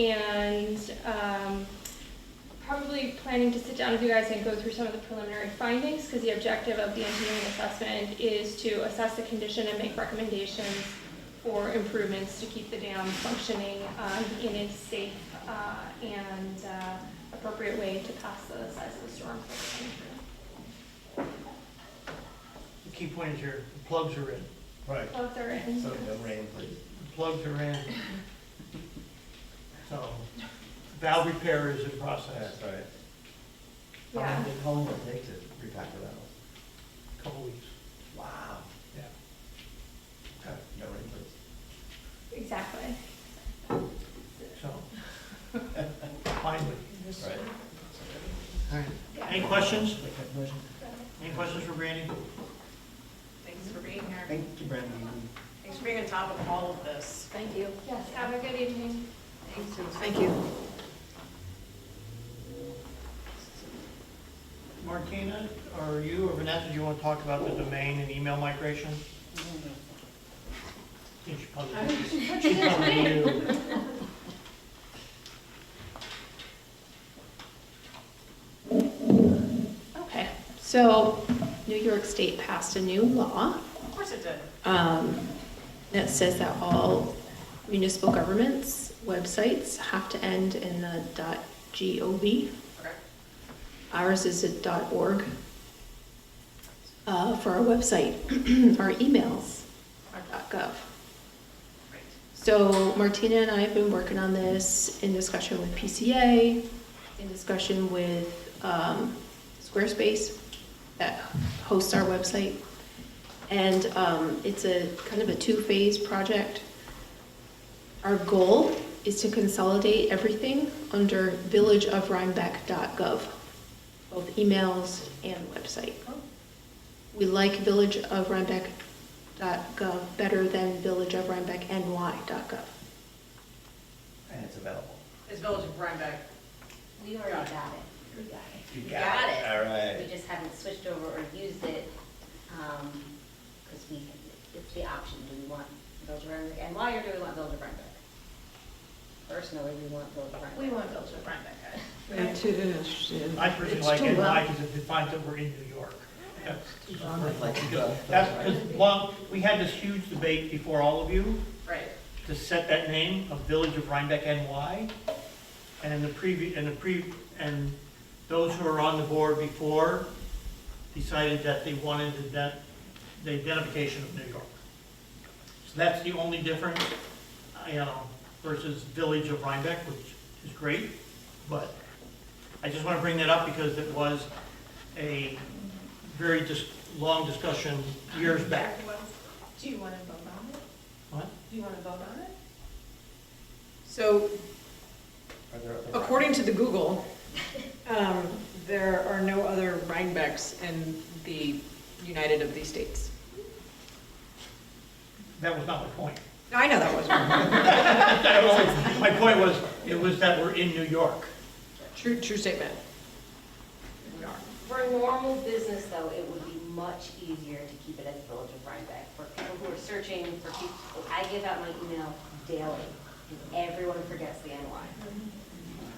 and um, probably planning to sit down with you guys and go through some of the preliminary findings, because the objective of the engineering assessment is to assess the condition and make recommendations for improvements to keep the dam functioning um, in a safe uh, and uh, appropriate way to pass the size of the storm. The key point is your the plugs are in. Right, Plugs are in. so Oh, no rain, please. The plugs are in. So valve repair is in process, Oh, That's all right. How Yeah. long, did- how long will it take to repack the valves? a couple weeks. Wow. Yeah. Okay, no rain, please. Exactly. So finally. Right. Any questions? Any questions for Brandy? Thanks for being here. Thank you, Brandon. Thanks for being on top of all of this. Thank you. Yes, have a good evening. Thank you. Martina, or you or Vanessa, do you want to talk about the domain and email migration? Did you probably, she probably knew. Okay, so New York State passed a new law Of course it did. um, that says that all municipal governments' websites have to end in the .gov. Okay. Ours is a .org uh, for our website, our emails are .gov. Great. So Martina and I have been working on this in discussion with PCA, in discussion with um, Squarespace that hosts our website. And um, it's a kind of a two-phase project. Our goal is to consolidate everything under villageofrhinebeck.gov, both emails and website. We like villageofrhinebeck.gov better than villageofrhinebeckny.gov. And it's available. It's Village of Rhinebeck. We already got it. We got it. You Got it. All We right. just haven't switched over or used it, um, because we, it's the option, do we want Village of Rhinebeck and why or do we want Village of Rhinebeck? Personally, we want Village of Rhinebeck. We want Village of Rhinebeck. It is. I personally It's like too it, low. like, because it defines that we're in New York. That's- Like, uh, That's because, well, we had this huge debate before all of you Right. to set that name of Village of Rhinebeck NY. And in the previ, and the pre, and those who were on the board before decided that they wanted the, ident- the identification of New York. So that's the only difference, you know, versus Village of Rhinebeck, which is great. But I just want to bring that up because it was a very dis, long discussion years back. Do you want to vote on it? What? Do you want to vote on it? So Are there other- according to the Google, um, there are no other Rhinebecks in the United of these states. That was not my point. Now, I know that wasn't That was- My point was, it was that we're in New York. true, true statement. We are. For normal business though, it would be much easier to keep it as Village of Rhinebeck. For people who are searching, for people, I give out my email daily, and everyone forgets the NY.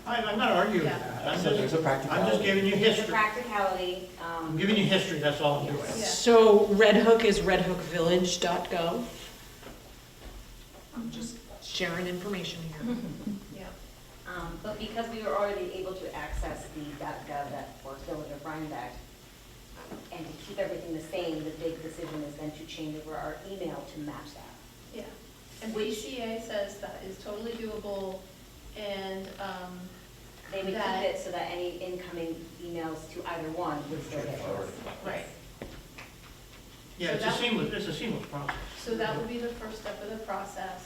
I- I'm not arguing with Yeah. that. I'm So there's just, a I'm just practicality. giving you It's a history. practicality, um. I'm giving you history, that's all I'm doing. So Red Hook is redhookvillage.gov. I'm just sharing information here. Um, but because we were already able to access the .gov that for Village of Rhinebeck, um, and to keep everything the same, the big decision is then to change over our email to match that. Yeah, and BCA says that is totally doable, and, um, They would keep That- it so that any incoming emails to either one would still get Straightforward. those. Right. Yeah, it's a seamless, it's a seamless process. so that would be the first step of the process.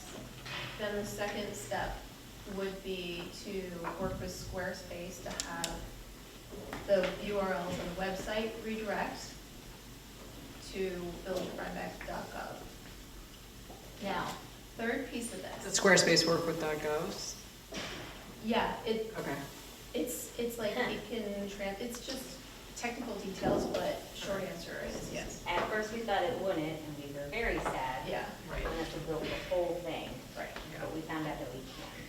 Then the second step would be to work with Squarespace to have the URLs on the website redirect to villagerhinebeck.gov. Now, third piece of Does this, Squarespace work with .govs? yeah, it, Okay. It's, it's like it can trans, it's just technical details, but short answer is yes. At first, we thought it wouldn't, and we were very sad. Yeah, We wanted to build the whole thing, right. but we found out that we can.